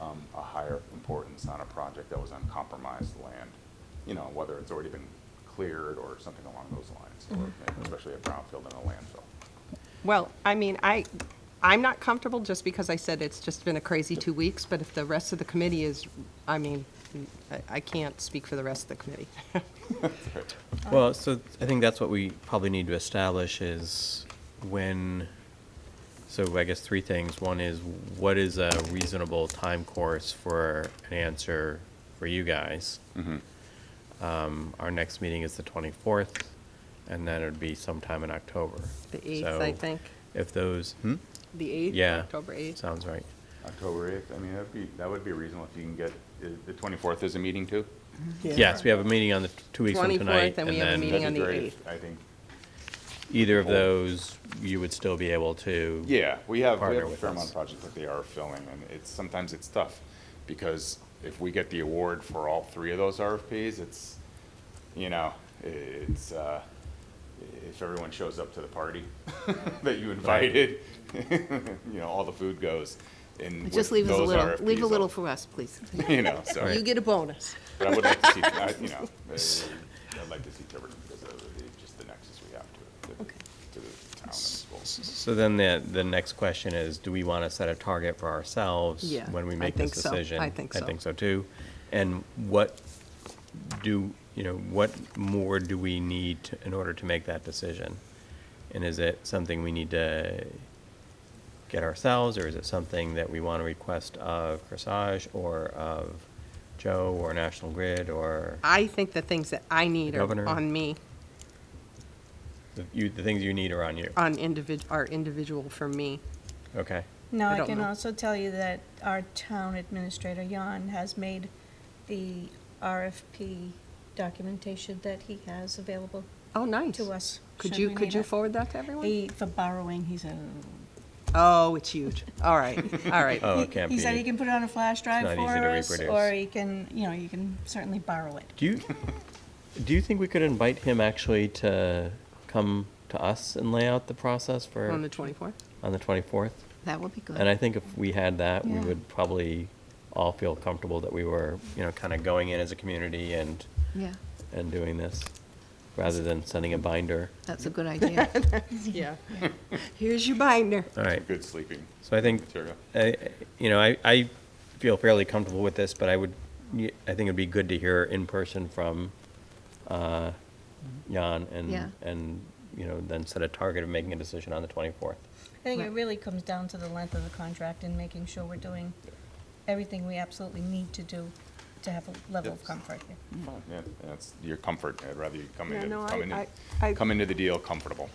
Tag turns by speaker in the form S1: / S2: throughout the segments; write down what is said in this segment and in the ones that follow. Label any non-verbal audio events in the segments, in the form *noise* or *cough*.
S1: um, a higher importance on a project that was on compromised land, you know, whether it's already been cleared or something along those lines, or
S2: Mm-hmm.
S1: maybe especially a brownfield and a landfill.
S2: Well, I mean, I, I'm not comfortable just because I said it's just been a crazy two weeks, but if the rest of the committee is, I mean, I, I can't speak for the rest of the committee. *laughs*
S3: Well, so I think that's what we probably need to establish is when, so I guess three things. One is what is a reasonable time course for an answer for you guys?
S1: Mm-hmm.
S3: Um, Our next meeting is the 24th, and then it'd be sometime in October.
S2: The eighth, I
S3: So
S2: think,
S3: If those, hmm?
S2: the eighth,
S3: Yeah.
S2: October eighth.
S3: Sounds right.
S1: October eighth, I mean, that'd be, that would be reasonable if you can get, i- the twenty-fourth is a meeting too?
S3: Yes, we have a meeting on the, two weeks from
S2: 24th,
S3: tonight.
S2: and we have a
S3: then
S2: meeting
S1: That'd
S2: on
S1: be
S2: the
S1: great,
S2: 8th.
S1: I think,
S3: Either of those, you would still be able to.
S1: yeah, we have, we
S3: Partner
S1: have a
S3: with
S1: fair amount
S3: us.
S1: of projects that they are filling, and it's, sometimes it's tough, because if we get the award for all three of those RFPs, it's, you know, i- it's, uh, if everyone shows up to the party *laughs* that you invited, *laughs* you know, all the food goes, and with
S2: Just leave us a
S1: those
S2: little, leave a
S1: RFPs,
S2: little for us, please.
S1: *laughs* You know, so.
S2: You get a bonus.
S1: But I would like to see, I- you
S2: *laughs*
S1: know, I- I'd like to see Tiverton because of the- just the nexus we have to, to-
S2: Okay.
S1: to the town and schools.
S3: So then the, the next question is, do we want to set a target for ourselves?
S2: Yeah,
S3: When we
S2: I
S3: make this
S2: think so.
S3: decision?
S2: I think so.
S3: I think so too. And what do, you know, what more do we need to- in order to make that decision? And is it something we need to get ourselves, or is it something that we want to request of Corsage, or of Joe, or National Grid, or
S2: I think the things that I need
S3: The
S2: are
S3: governor.
S2: on me,
S3: the- you, the things you need are on you?
S2: on individ, are individual for me.
S3: Okay.
S4: Now,
S2: I
S4: I
S2: don't
S4: can
S2: know.
S4: also tell you that our town administrator, Jan, has made the RFP documentation that he has available
S2: Oh, nice.
S4: to us.
S2: Could
S4: should
S2: you,
S4: we
S2: could
S4: need
S2: you
S4: it.
S2: forward that to everyone?
S4: He, for borrowing, he said.
S2: Oh, it's huge. All right, all *laughs* right.
S3: Oh,
S4: He-
S3: it can't
S4: He said
S3: be-
S4: he can put it on a flash
S3: not
S4: drive
S3: easy
S4: for
S3: to
S4: us, or
S3: reproduce.
S4: he can, you know, you can certainly borrow it.
S3: Do you do you think we could invite him actually to come to us and lay out the process for
S2: On the uh, twenty-fourth?
S3: on the 24th?
S2: That would be good.
S3: And I think if we had that, we
S4: Yeah.
S3: would probably all feel comfortable that we were, you know, kind of going in as a community and
S5: Yeah,
S3: and doing this rather than sending a binder.
S5: that's a good
S3: *laughs*
S5: idea.
S2: Yeah. Here's your binder.
S3: All right.
S1: Good sleeping
S3: So I think
S1: material.
S3: I, you know, I, I feel fairly comfortable with this, but I would, I think it'd be good to hear in person from, uh, Jan
S5: Yeah.
S3: and, and, you know, then set a target of making a decision on the twenty-fourth.
S4: I think it
S2: Right.
S4: really comes down to the length of the contract and making sure we're doing everything we absolutely need to do to have a level of
S1: Yes.
S4: comfort here.
S1: Fine, Yeah, that's your comfort. I'd rather you come
S2: Yeah,
S1: into,
S2: no, I-
S1: come into,
S2: I- I-
S1: come into the deal comfortable.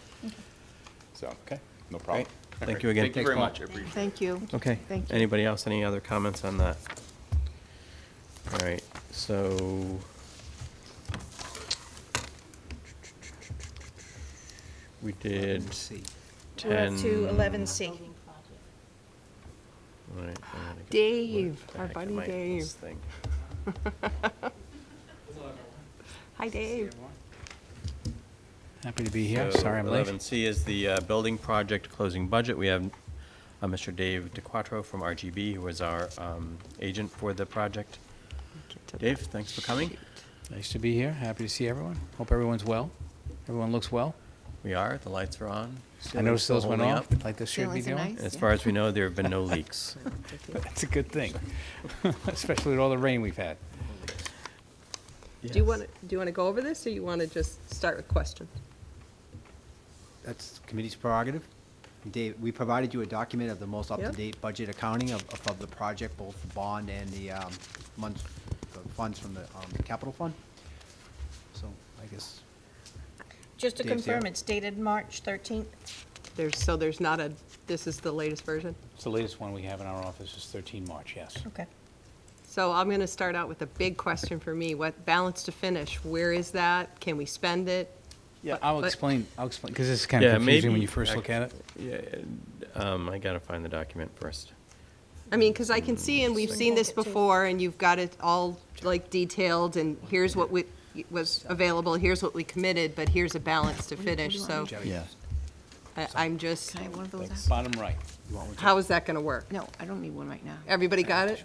S1: So,
S3: Okay.
S1: no problem.
S3: Great.
S1: All
S3: Thank
S1: right.
S3: you again.
S1: Thank you
S3: Thanks,
S1: very
S3: Paul.
S1: much. I appreciate it.
S5: Thank you.
S3: Okay.
S5: Thank you.
S3: Anybody else, any other comments on that? All right, so. We did ten.
S4: To eleven C.
S3: All right, I'm gonna get-
S2: Dave,
S3: what the
S2: our
S3: heck
S2: buddy
S3: am I at
S2: Dave.
S3: this thing?
S2: Hi, Dave.
S6: Happy to be here.
S3: So
S6: Sorry I'm late.
S3: 11C is the uh, building project closing budget. We have uh, Mr. Dave DeQuattro from RGB, who was our um, agent for the project.
S2: Get to
S3: Dave,
S2: that.
S3: thanks for coming.
S6: Nice to be here. Happy to see everyone. Hope everyone's well. Everyone looks well.
S3: We are, the lights are on.
S6: I
S3: ceiling's
S6: noticed
S3: still
S6: those went
S3: holding
S6: off,
S3: up.
S6: like they should be
S5: Ceilings are
S6: doing.
S5: nice.
S3: As
S5: Yeah.
S3: far as we know, there have been no leaks.
S6: *laughs* That's a good thing, especially with all the rain we've had.
S2: Do you want, to do you want to go over this, or you want to just start with questions?
S7: That's the committee's prerogative. Dave, we provided you a document of the most
S2: Yep.
S7: up-to-date budget accounting of, of- of the project, both the bond and the, um, funds, the funds from the, um, capital fund. So I guess
S4: Just to
S7: Dave's here.
S4: confirm, it's dated March thirteenth.
S2: There's, so there's not a, this is the latest version?
S6: It's the latest one we have in our office is 13 March, yes.
S4: Okay.
S2: So I'm going to start out with a big question for me. What balance to finish? Where is that? Can we spend it?
S6: Yeah,
S2: But-
S6: I'll
S2: but-
S6: explain, I'll explain, because this is kind of
S3: Yeah,
S6: confusing when
S3: maybe
S6: you first look at it.
S3: Um, I gotta find the document first.
S2: I mean, because I can see, and we've seen this before, and you've got it all, like, detailed, and here's what we, was available, here's what we committed, but here's a balance to finish, so
S7: Yeah.
S2: I- I'm just,
S5: Can I have one of those? out?
S6: Bottom right.
S2: how is that going to work?
S5: No, I don't need one right now.
S2: Everybody got it?